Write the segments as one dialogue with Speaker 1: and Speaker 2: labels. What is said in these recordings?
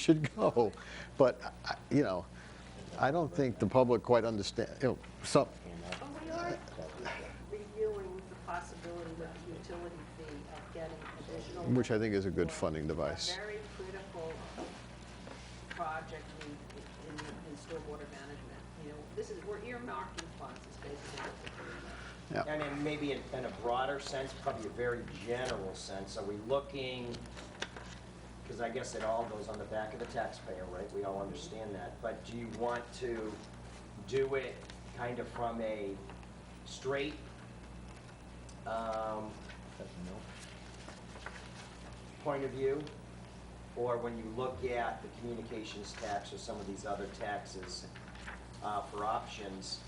Speaker 1: should go. But, I- you know, I don't think the public quite understand, you know, some,
Speaker 2: Well, we are reviewing the possibility with the utility fee of getting additional.
Speaker 1: Which I think is a good
Speaker 2: money for
Speaker 1: funding device.
Speaker 2: A very critical project in, in, in stormwater management. You know, this is, we're earmarking funds, is basically what we're doing.
Speaker 1: yeah.
Speaker 3: And then maybe in in a broader sense, probably a very general sense, are we looking, because I guess it all goes on the back of the taxpayer, right? We all understand that, but do you want to do it kind of from a straight, um, point of view? Or when you look at the communications tax or some of these other taxes uh, for options,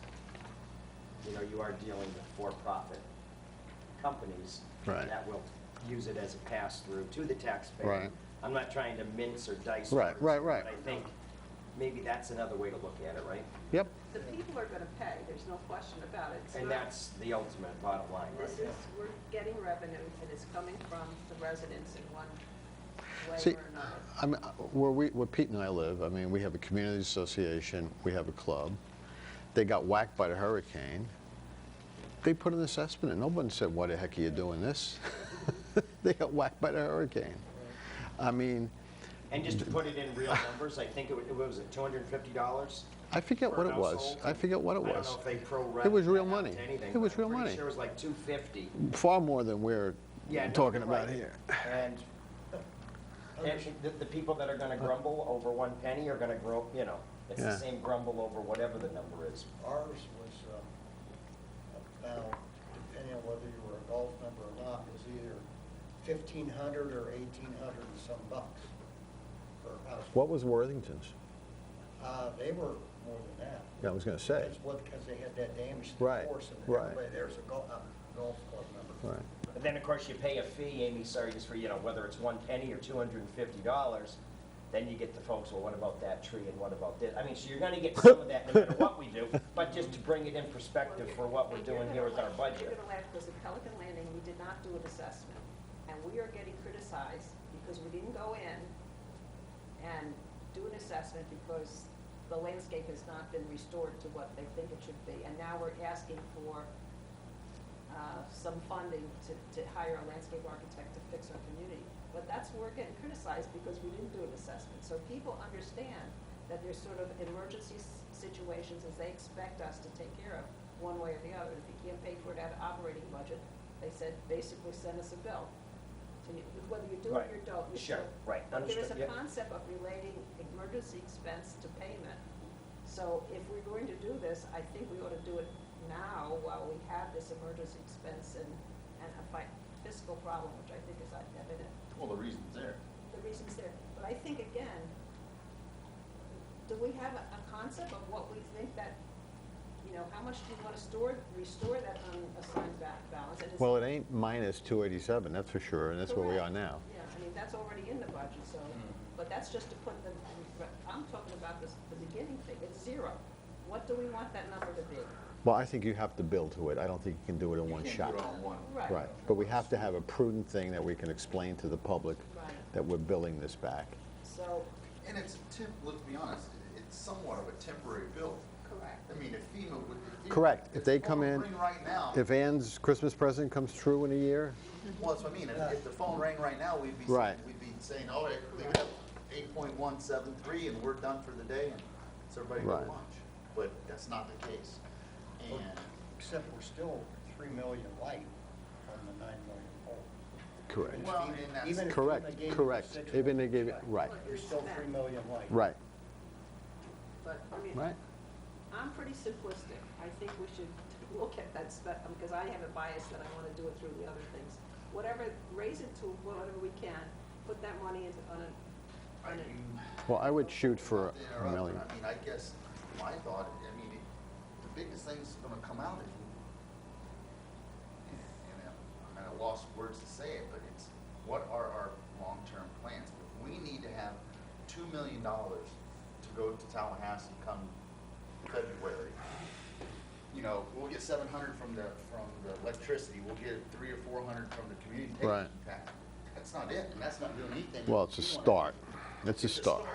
Speaker 3: you know, you are dealing with for-profit companies.
Speaker 1: Right.
Speaker 3: That will use it as a pass-through to the taxpayer.
Speaker 1: Right.
Speaker 3: I'm not trying to mince or dice.
Speaker 1: Right, right, right.
Speaker 3: But I think maybe that's another way to look at it, right?
Speaker 1: Yep,
Speaker 2: The people are gonna pay, there's no question about it. It's
Speaker 3: And
Speaker 2: not-
Speaker 3: that's the ultimate bottom line, right?
Speaker 2: This is, we're getting revenue, and it's coming from the residents in one way
Speaker 1: See,
Speaker 2: or another.
Speaker 1: I mean, where we, where Pete and I live, I mean, we have a community association, we have a club. They got whacked by the hurricane. They put an assessment in, nobody said, why the heck are you doing this? They got whacked by the hurricane. I mean,
Speaker 3: And just to put it in real numbers, I think it wa- it was at $250?
Speaker 1: I forget
Speaker 3: per
Speaker 1: what it was,
Speaker 3: household.
Speaker 1: I forget what it
Speaker 3: I don't
Speaker 1: was.
Speaker 3: know if they pro-rata
Speaker 1: It was real
Speaker 3: that out
Speaker 1: money.
Speaker 3: to anything,
Speaker 1: It
Speaker 3: but
Speaker 1: was
Speaker 3: I'm
Speaker 1: real
Speaker 3: pretty
Speaker 1: money.
Speaker 3: sure it was like 250.
Speaker 1: Far more than we're
Speaker 3: Yeah, no,
Speaker 1: talking
Speaker 3: you're
Speaker 1: about
Speaker 3: right.
Speaker 1: here.
Speaker 3: And, and the, the people that are gonna
Speaker 1: Uh.
Speaker 3: grumble over one penny are gonna grow, you know, it's
Speaker 1: Yeah.
Speaker 3: the same grumble over whatever the number is.
Speaker 4: Ours was, um, about, depending on whether you were a golf member or not, was either fifteen hundred or eighteen hundred and some bucks per house.
Speaker 5: What was Worthington's?
Speaker 4: Uh, they were more than that.
Speaker 5: Yeah, I was gonna say.
Speaker 4: That's what, because they had that damage to the
Speaker 5: Right,
Speaker 4: course and
Speaker 5: right.
Speaker 4: everybody there's a golf, a golf club member.
Speaker 5: Right.
Speaker 3: But then, of course, you pay a fee, Amy, sorry, just for, you know, whether it's one penny or two hundred and fifty dollars, then you get the folks, well, what about that tree and what about this? I mean, so you're gonna get some of that no matter what we do, but just to bring it in perspective for what we're doing here with our
Speaker 2: You're
Speaker 3: budget.
Speaker 2: gonna laugh, because at Pelican Landing, we did not do an assessment, and we are getting criticized because we didn't go in and do an assessment because the landscape has not been restored to what they think it should be, and now we're asking for, uh, some funding to, to hire a landscape architect to fix our community. But that's, where we're getting criticized because we didn't do an assessment. So people understand that there's sort of emergency s- situations as they expect us to take care of, one way or the other. If you can't pay for it out of operating budget, they said, basically send us a bill. So you- Whether you do it or
Speaker 3: Right.
Speaker 2: don't, you
Speaker 3: Sure.
Speaker 2: should.
Speaker 3: Right.
Speaker 2: But there is
Speaker 3: Understood.
Speaker 2: a
Speaker 3: Yep.
Speaker 2: concept of relating emergency expense to payment. So if we're going to do this, I think we ought to do it now while we have this emergency expense and, and a fi- fiscal problem, which I think is evident.
Speaker 6: Well, the reason's there.
Speaker 2: The reason's there. But I think again, do we have a, a concept of what we think that, you know, how much do you want to store, restore that unassigned ba- balance? And is-
Speaker 1: Well, it ain't minus 287, that's for sure, and that's where we are
Speaker 2: Correct.
Speaker 1: now.
Speaker 2: Yeah, I mean, that's already in the budget, so, but that's just to put the, I'm talking about this, the beginning thing, it's zero. What do we want that number to be?
Speaker 1: Well, I think you have to build to it. I don't think you can do it in one
Speaker 6: You
Speaker 1: shot.
Speaker 6: Can't do it on one.
Speaker 1: Right, but we have to have a prudent thing that we can explain to the public
Speaker 2: Right.
Speaker 1: that we're building this back.
Speaker 2: So,
Speaker 6: And it's, temp- let's be honest, it- it's somewhat of a temporary build.
Speaker 2: correct.
Speaker 6: I mean, if FEMA would. if FEMA-
Speaker 1: Correct. If they
Speaker 6: the
Speaker 1: come
Speaker 6: phone
Speaker 1: in-
Speaker 6: Ring right now,
Speaker 1: If Ann's Christmas present comes true in a year,
Speaker 6: well, that's what I mean, if if the phone rang right now, we'd be,
Speaker 1: Right.
Speaker 6: saying- we'd be saying, oh, it- they have eight point one seven three and we're done for the day and it's everybody go
Speaker 1: Right.
Speaker 6: lunch. But that's not the case. And
Speaker 4: Except we're still three million light on the nine million hole.
Speaker 1: correct,
Speaker 6: Well, and that's-
Speaker 4: Even if FEMA
Speaker 1: correct,
Speaker 4: gave you
Speaker 1: correct.
Speaker 4: residual
Speaker 1: Even they gave it,
Speaker 4: effect,
Speaker 1: right,
Speaker 4: You're still three million light.
Speaker 1: right,
Speaker 2: But, I mean,
Speaker 1: right.
Speaker 2: I'm pretty simplistic. I think we should look at that stuff, because I have a bias that I want to do it through the other things. Whatever, raise it to whatever we can, put that money into, on a,
Speaker 6: I
Speaker 2: on a
Speaker 6: mean,
Speaker 1: Well, I would shoot for
Speaker 6: Not to
Speaker 1: a
Speaker 6: interrupt,
Speaker 1: million.
Speaker 6: but I mean, I guess my thought, I mean, it- the biggest thing that's gonna come out is, and I'm- I'm at a lost words to say it, but it's, what are our long-term plans? We need to have two million dollars to go to Tallahassee come February. You know, we'll get seven hundred from the, from the electricity, we'll get three or four hundred from the community
Speaker 1: Right.
Speaker 6: tax. That's not it, and that's not doing anything.
Speaker 1: Well, it's a
Speaker 6: We wanna-
Speaker 1: start. It's a
Speaker 6: It's a
Speaker 1: start.